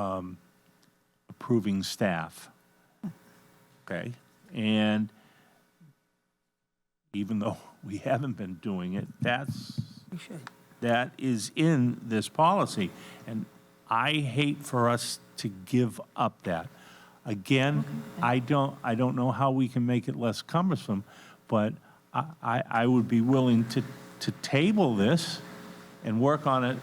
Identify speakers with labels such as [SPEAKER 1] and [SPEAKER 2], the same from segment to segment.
[SPEAKER 1] um, approving staff. Okay? And even though we haven't been doing it, that's,
[SPEAKER 2] We should.
[SPEAKER 1] that is in this policy. And I hate for us to give up that. Again, I don't, I don't know how we can make it less cumbersome, but I, I, I would be willing to, to table this and work on it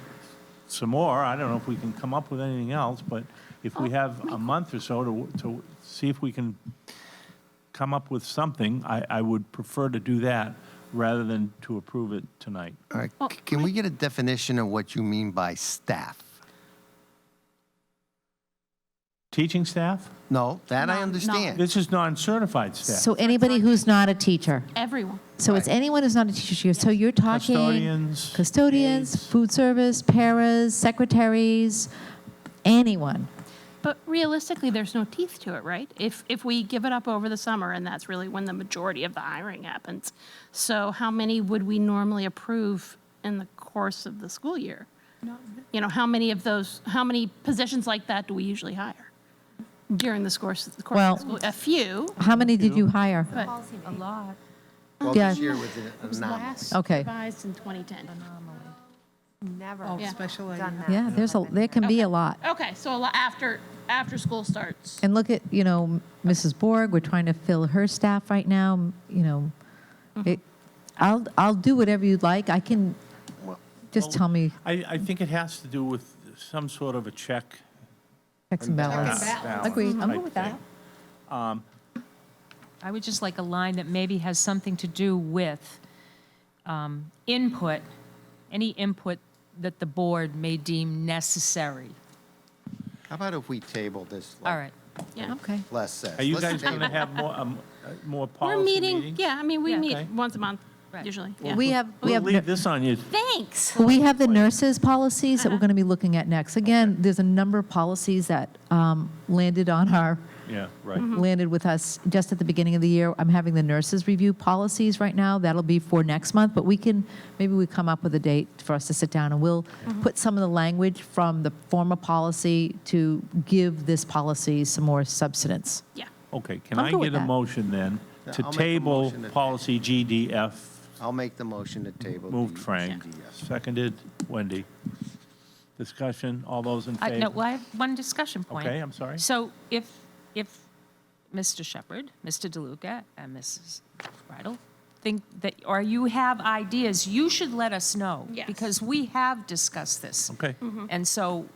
[SPEAKER 1] some more. I don't know if we can come up with anything else, but if we have a month or so to, to see if we can come up with something, I, I would prefer to do that rather than to approve it tonight.
[SPEAKER 3] All right, c- can we get a definition of what you mean by staff?
[SPEAKER 1] Teaching staff?
[SPEAKER 3] No, that
[SPEAKER 4] No,
[SPEAKER 3] I
[SPEAKER 4] no.
[SPEAKER 3] understand.
[SPEAKER 1] This is non-certified staff.
[SPEAKER 5] So anybody who's not a teacher.
[SPEAKER 4] Everyone.
[SPEAKER 5] So it's anyone who's not a teacher. So you're- So you're talking.
[SPEAKER 1] Custodians,
[SPEAKER 5] Custodians,
[SPEAKER 1] aides.
[SPEAKER 5] food service, paras, secretaries, anyone.
[SPEAKER 4] But realistically, there's no teeth to it, right? If, if we give it up over the summer, and that's really when the majority of the hiring happens. So how many would we normally approve in the course of the school year? You know, how many of those, how many positions like that do we usually hire during this course, the course
[SPEAKER 5] Well-
[SPEAKER 4] of the school? A few,
[SPEAKER 5] How many did you hire?
[SPEAKER 4] but
[SPEAKER 6] A lot.
[SPEAKER 3] Well,
[SPEAKER 5] Yeah.
[SPEAKER 3] this year was an anomaly.
[SPEAKER 4] last
[SPEAKER 5] Okay.
[SPEAKER 4] revised in 2010.
[SPEAKER 6] Never.
[SPEAKER 2] Oh,
[SPEAKER 4] Yeah.
[SPEAKER 2] special ed,
[SPEAKER 6] Done
[SPEAKER 2] yeah.
[SPEAKER 6] that.
[SPEAKER 5] Yeah, there's a, there can be a lot.
[SPEAKER 4] Okay, so a lo- after, after school starts.
[SPEAKER 5] And look at, you know, Mrs. Borg, we're trying to fill her staff right now, m- you know.
[SPEAKER 1] Mm-hmm.
[SPEAKER 5] It- I'll, I'll do whatever you'd like. I can, just tell me,
[SPEAKER 1] I, I think it has to do with some sort of a check.
[SPEAKER 5] checks and balances.
[SPEAKER 1] balance,
[SPEAKER 5] Agreed, I'm
[SPEAKER 1] I
[SPEAKER 5] good with that.
[SPEAKER 1] think.
[SPEAKER 7] I would just like a line that maybe has something to do with um, input, any input that the board may deem necessary.
[SPEAKER 3] How about if we table this
[SPEAKER 7] All
[SPEAKER 3] like
[SPEAKER 7] right.
[SPEAKER 4] Yeah.
[SPEAKER 5] Okay.
[SPEAKER 3] less says?
[SPEAKER 1] Are you
[SPEAKER 3] Let's
[SPEAKER 1] guys going to
[SPEAKER 3] table.
[SPEAKER 1] have more, um, uh, more
[SPEAKER 4] We're
[SPEAKER 1] policy
[SPEAKER 4] meeting,
[SPEAKER 1] meetings?
[SPEAKER 4] yeah, I mean, we
[SPEAKER 7] Yeah.
[SPEAKER 4] meet
[SPEAKER 1] Okay.
[SPEAKER 4] once a month,
[SPEAKER 7] Right.
[SPEAKER 4] usually, yeah.
[SPEAKER 7] Well,
[SPEAKER 5] We have, we
[SPEAKER 1] We'll
[SPEAKER 5] have.
[SPEAKER 1] leave this on you.
[SPEAKER 4] Thanks.
[SPEAKER 5] Well, we have the nurses' policies that we're
[SPEAKER 7] Uh-huh.
[SPEAKER 5] going to be looking at next. Again, there's a number of policies that um, landed on our,
[SPEAKER 1] Yeah, right.
[SPEAKER 7] Mm-hmm.
[SPEAKER 5] landed with us just at the beginning of the year. I'm having the nurses review policies right now. That'll be for next month, but we can, maybe we come up with a date for us to sit down, and we'll
[SPEAKER 7] Mm-hmm.
[SPEAKER 5] put some of the language from the former policy to give this policy some more substance.
[SPEAKER 4] Yeah.
[SPEAKER 1] Okay, can
[SPEAKER 5] I'm
[SPEAKER 1] I
[SPEAKER 5] good with
[SPEAKER 1] get a
[SPEAKER 5] that.
[SPEAKER 1] motion then
[SPEAKER 3] Yeah,
[SPEAKER 1] to
[SPEAKER 3] I'll make a
[SPEAKER 1] table
[SPEAKER 3] motion to ta-
[SPEAKER 1] policy GDF?
[SPEAKER 3] I'll make the motion to table.
[SPEAKER 1] Moved
[SPEAKER 3] the
[SPEAKER 1] Frank,
[SPEAKER 3] GDS.
[SPEAKER 1] seconded Wendy. Discussion, all those in
[SPEAKER 7] I-
[SPEAKER 1] favor?
[SPEAKER 7] No, well, I have one discussion point.
[SPEAKER 1] Okay, I'm sorry.
[SPEAKER 7] So if, if Mr. Shepherd, Mr. DeLuca, and Mrs. Bridle think that, or you have ideas, you should let us know.
[SPEAKER 4] Yes.
[SPEAKER 7] Because we have discussed this.
[SPEAKER 1] Okay.
[SPEAKER 7] And so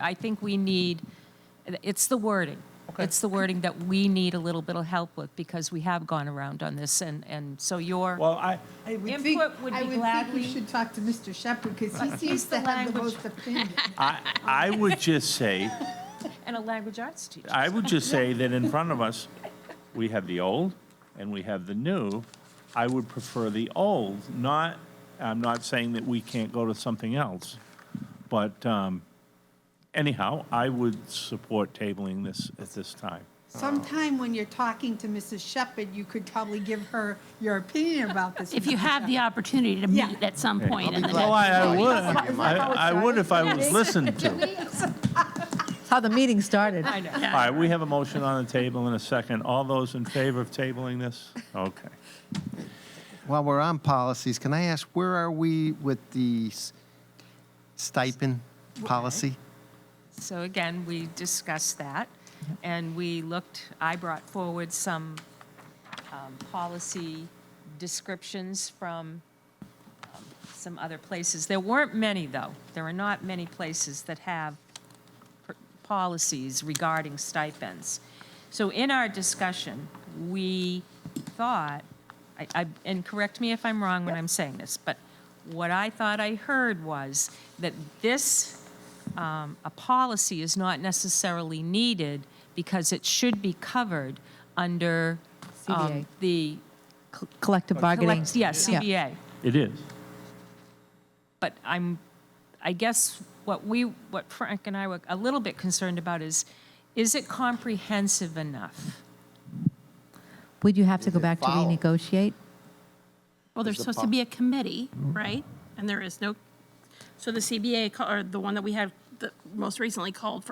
[SPEAKER 7] I- I think we need, it's the wording.
[SPEAKER 1] Okay.
[SPEAKER 7] It's the wording that we need a little bit of help with because we have gone around on this and, and so your,
[SPEAKER 1] Well, I,
[SPEAKER 2] I would
[SPEAKER 7] Input
[SPEAKER 2] think-
[SPEAKER 7] would be
[SPEAKER 2] I would think
[SPEAKER 7] gladly-
[SPEAKER 2] we should talk to Mr. Shepherd, because he seems
[SPEAKER 7] the
[SPEAKER 2] to have the
[SPEAKER 7] language.
[SPEAKER 2] most opinion.
[SPEAKER 1] I, I would just say,
[SPEAKER 7] and a language arts teacher.
[SPEAKER 1] I would just say that in front of us, we have the old and we have the new. I would prefer the old, not, I'm not saying that we can't go to something else. But um, anyhow, I would support tabling this at this time.
[SPEAKER 2] Sometime when you're talking to Mrs. Shepherd, you could probably give her your opinion about this.
[SPEAKER 4] If you
[SPEAKER 2] Mr.
[SPEAKER 4] have the
[SPEAKER 2] Shepherd.
[SPEAKER 4] opportunity to
[SPEAKER 2] Yeah.
[SPEAKER 4] meet at some
[SPEAKER 1] Okay.
[SPEAKER 4] point
[SPEAKER 3] I'll
[SPEAKER 4] in
[SPEAKER 3] be
[SPEAKER 4] the
[SPEAKER 3] glad.
[SPEAKER 1] Oh,
[SPEAKER 4] next.
[SPEAKER 1] I, I
[SPEAKER 3] Is
[SPEAKER 1] would,
[SPEAKER 3] that how it started?
[SPEAKER 1] I I would if I was listened to.
[SPEAKER 5] That's how the meeting started.
[SPEAKER 7] I know.
[SPEAKER 1] All right, we have a motion on the table in a second. All those in favor of tabling this? Okay.
[SPEAKER 3] While we're on policies, can I ask, where are we with the s- stipend policy?
[SPEAKER 7] So again, we discussed that, and we looked, I brought forward some um, policy descriptions from um, some other places. There weren't many, though. There are not many places that have pr- policies regarding stipends. So in our discussion, we thought, I- I, and correct me if I'm wrong when I'm saying this, but what I thought I heard was that this um, a policy is not necessarily needed because it should be covered under um,
[SPEAKER 5] CBA.
[SPEAKER 7] the.
[SPEAKER 5] Col- Collective bargaining.
[SPEAKER 7] collect- Yeah, CBA.
[SPEAKER 1] It is.
[SPEAKER 7] But I'm, I guess what we, what Frank and I were a little bit concerned about is, is it comprehensive enough?
[SPEAKER 5] Would you have to
[SPEAKER 3] Is
[SPEAKER 5] go
[SPEAKER 3] it
[SPEAKER 5] back to
[SPEAKER 3] foul?
[SPEAKER 5] renegotiate?
[SPEAKER 4] Well, there's
[SPEAKER 3] Is the
[SPEAKER 4] supposed to
[SPEAKER 3] pop-
[SPEAKER 4] be a committee, right? And there is no, so the CBA, ca- or the one that we had that most recently called for